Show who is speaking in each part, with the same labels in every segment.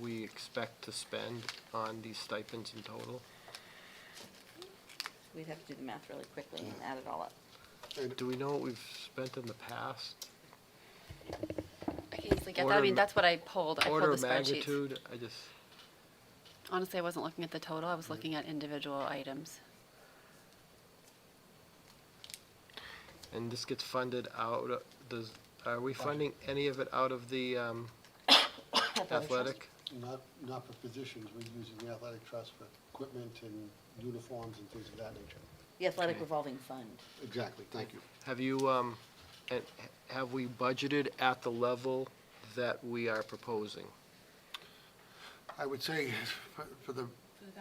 Speaker 1: we expect to spend on these stipends in total?
Speaker 2: We'd have to do the math really quickly and add it all up.
Speaker 1: Do we know what we've spent in the past?
Speaker 3: I can easily get that.
Speaker 1: Order
Speaker 3: I
Speaker 1: of
Speaker 3: mean,
Speaker 1: ma-
Speaker 3: that's what I pulled. I pulled
Speaker 1: Order
Speaker 3: the
Speaker 1: of
Speaker 3: spreadsheets.
Speaker 1: magnitude, I just,
Speaker 3: Honestly, I wasn't looking at the total. I was looking at individual items.
Speaker 1: and this gets funded out, of- does, are we funding any of it out of the um, athletic?
Speaker 4: Not, not for positions, we're using the athletic trust for equipment and uniforms and things of that nature.
Speaker 2: The athletic
Speaker 1: Okay.
Speaker 2: revolving fund.
Speaker 4: Exactly, thank you.
Speaker 1: Have you, um, and h- have we budgeted at the level that we are proposing?
Speaker 4: I would say for- for the,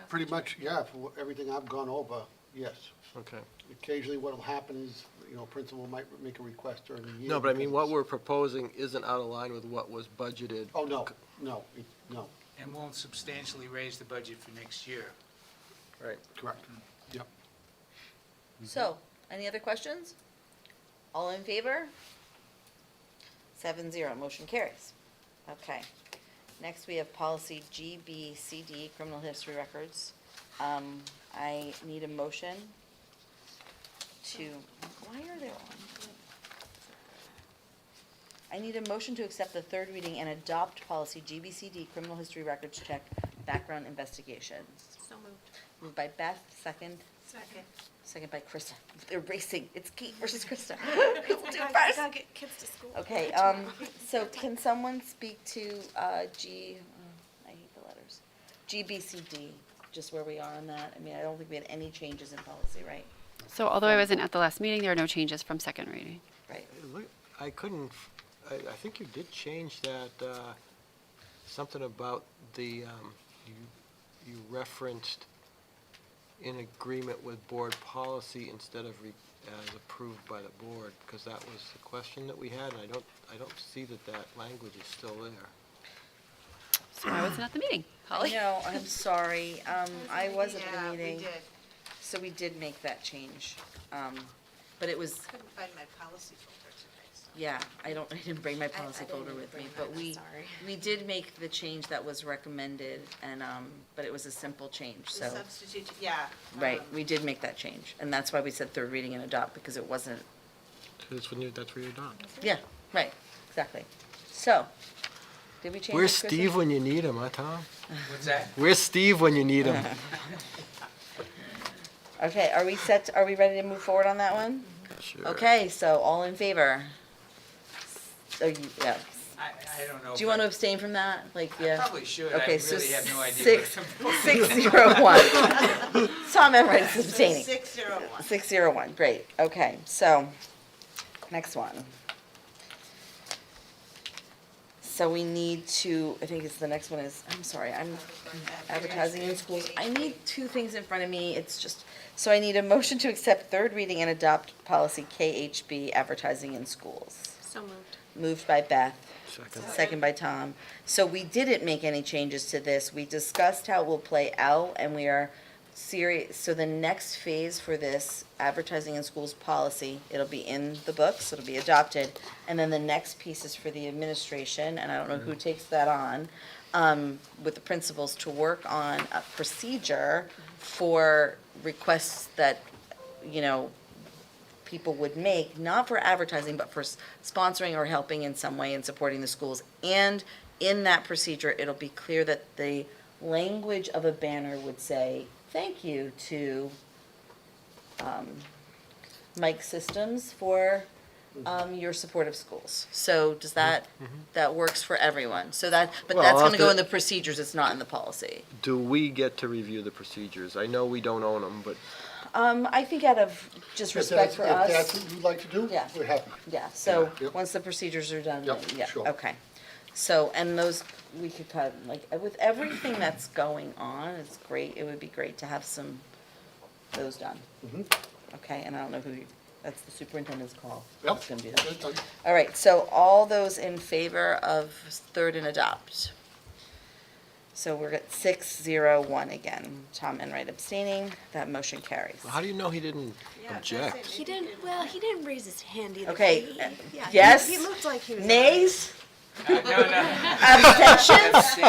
Speaker 4: pretty much, yeah, for everything I've gone over, yes.
Speaker 1: Okay.
Speaker 4: Occasionally what'll happen is, you know, principal might make a request during the year.
Speaker 1: No, but I mean, what
Speaker 4: because-
Speaker 1: we're proposing isn't out of line with what was budgeted.
Speaker 4: Oh, no, no, it- no,
Speaker 5: and won't substantially raise the budget for next year.
Speaker 1: Right.
Speaker 4: correct, yep.
Speaker 2: So, any other questions? All in favor? Seven zero, motion carries. Okay. Next, we have policy GBCD, criminal history records. Um, I need a motion to, why are there on? I need a motion to accept the third reading and adopt policy GBCD, criminal history records check, background investigations.
Speaker 6: So moved.
Speaker 2: Moved by Beth, second.
Speaker 6: Second.
Speaker 2: Second by Krista. They're racing. It's Kate versus Krista.
Speaker 6: I
Speaker 2: Krista do it
Speaker 6: gotta- I
Speaker 2: first.
Speaker 6: gotta get kids to school.
Speaker 2: Okay, um, so can someone speak to, uh, G, oh, I hate the letters, GBCD, just where we are on that? I mean, I don't think we had any changes in policy, right?
Speaker 3: So although I wasn't at the last meeting, there are no changes from second reading.
Speaker 2: Right.
Speaker 1: Look, I couldn't, f- I, I think you did change that, uh, something about the, um, you, you referenced in agreement with board policy instead of re, as approved by the board, because that was the question that we had, and I don't, I don't see that that language is still there.
Speaker 3: So I wasn't at the meeting. Holly?
Speaker 2: No, I'm sorry. Um, I wasn't at
Speaker 6: Oh, Yeah,
Speaker 2: the
Speaker 6: we
Speaker 2: meeting.
Speaker 6: did.
Speaker 2: So we did make that change. Um, but it was,
Speaker 6: Couldn't find my policy folder today, so.
Speaker 2: Yeah, I don't, I didn't bring my
Speaker 6: I- I
Speaker 2: policy
Speaker 6: didn't
Speaker 2: folder
Speaker 6: even
Speaker 2: with me,
Speaker 6: bring
Speaker 2: but
Speaker 6: mine,
Speaker 2: we,
Speaker 6: sorry.
Speaker 2: we did make the change that was recommended and, um, but it was a simple change, so.
Speaker 6: Substitute, yeah.
Speaker 2: Right,
Speaker 6: um,
Speaker 2: we did make that change, and that's why we said third reading and adopt, because it wasn't,
Speaker 1: That's when you, that's where you're done.
Speaker 2: yeah, right, exactly. So, did we change?
Speaker 1: Where's
Speaker 2: it, Krista?
Speaker 1: Steve when you need him, huh, Tom?
Speaker 5: What's that?
Speaker 1: Where's Steve when you need him?
Speaker 2: Okay, are we set, are we ready to move forward on that one?
Speaker 1: Sure.
Speaker 2: Okay, so all in favor? So you, yeah,
Speaker 5: I, I don't know.
Speaker 2: do you want to
Speaker 5: but
Speaker 2: abstain from that? Like,
Speaker 5: I
Speaker 2: yeah.
Speaker 5: Probably should. I
Speaker 2: Okay, so
Speaker 5: really have no idea.
Speaker 2: six, six zero one. Tom Enright is
Speaker 6: so
Speaker 2: abstaining.
Speaker 6: 601.
Speaker 2: Six zero one, great, okay, so, next one. So we need to, I think it's, the next one is, I'm sorry, I'm advertising in schools. I need two things in front of me, it's just, so I need a motion to accept third reading and adopt policy KHB, advertising in schools.
Speaker 6: So moved.
Speaker 2: Moved by Beth.
Speaker 1: Second.
Speaker 2: Second by Tom. So we didn't make any changes to this. We discussed how it will play out, and we are serious, so the next phase for this advertising in schools policy, it'll be in the books, it'll be adopted. And then the next piece is for the administration, and I don't know who takes that on, um, with the principals to work on a procedure for requests that, you know, people would make, not for advertising, but for s- sponsoring or helping in some way and supporting the schools. And in that procedure, it'll be clear that the language of a banner would say, thank you to um, Mike Systems for um, your support of schools. So does that, that works for everyone. So that,
Speaker 1: Mm-hmm.
Speaker 2: but
Speaker 1: Well,
Speaker 2: that's
Speaker 1: I'll
Speaker 2: going to
Speaker 1: have
Speaker 2: go
Speaker 1: to-
Speaker 2: in the procedures, it's not in the policy.
Speaker 1: Do we get to review the procedures? I know we don't own them, but
Speaker 2: Um, I think out of just
Speaker 4: If
Speaker 2: respect
Speaker 4: that's-
Speaker 2: for
Speaker 4: If
Speaker 2: us.
Speaker 4: that's what you'd like to do,
Speaker 2: Yeah.
Speaker 4: we're happy.
Speaker 2: Yeah, so,
Speaker 4: Yep.
Speaker 2: once the procedures are done, then,
Speaker 4: Yep,
Speaker 2: yeah,
Speaker 4: sure.
Speaker 2: okay. So, and those, we could cut, like, with everything that's going on, it's great, it would be great to have some, those done.
Speaker 4: Mm-hmm.
Speaker 2: Okay, and I don't know who, you- that's the superintendent's call.
Speaker 4: Yep.
Speaker 2: It's gonna be that.
Speaker 4: Okay.
Speaker 2: All right, so all those in favor of third and adopt? So we're at six, zero, one again. Tom Enright abstaining, that motion carries.
Speaker 1: how do you know he didn't object?
Speaker 6: He
Speaker 7: didn't, well, he didn't raise his hand either.
Speaker 2: Okay,
Speaker 7: He-
Speaker 2: uh,
Speaker 7: yeah, he-
Speaker 2: yes,
Speaker 7: He looked like he was.
Speaker 2: Nays,
Speaker 5: No, no.
Speaker 2: abstentions?
Speaker 5: That's it.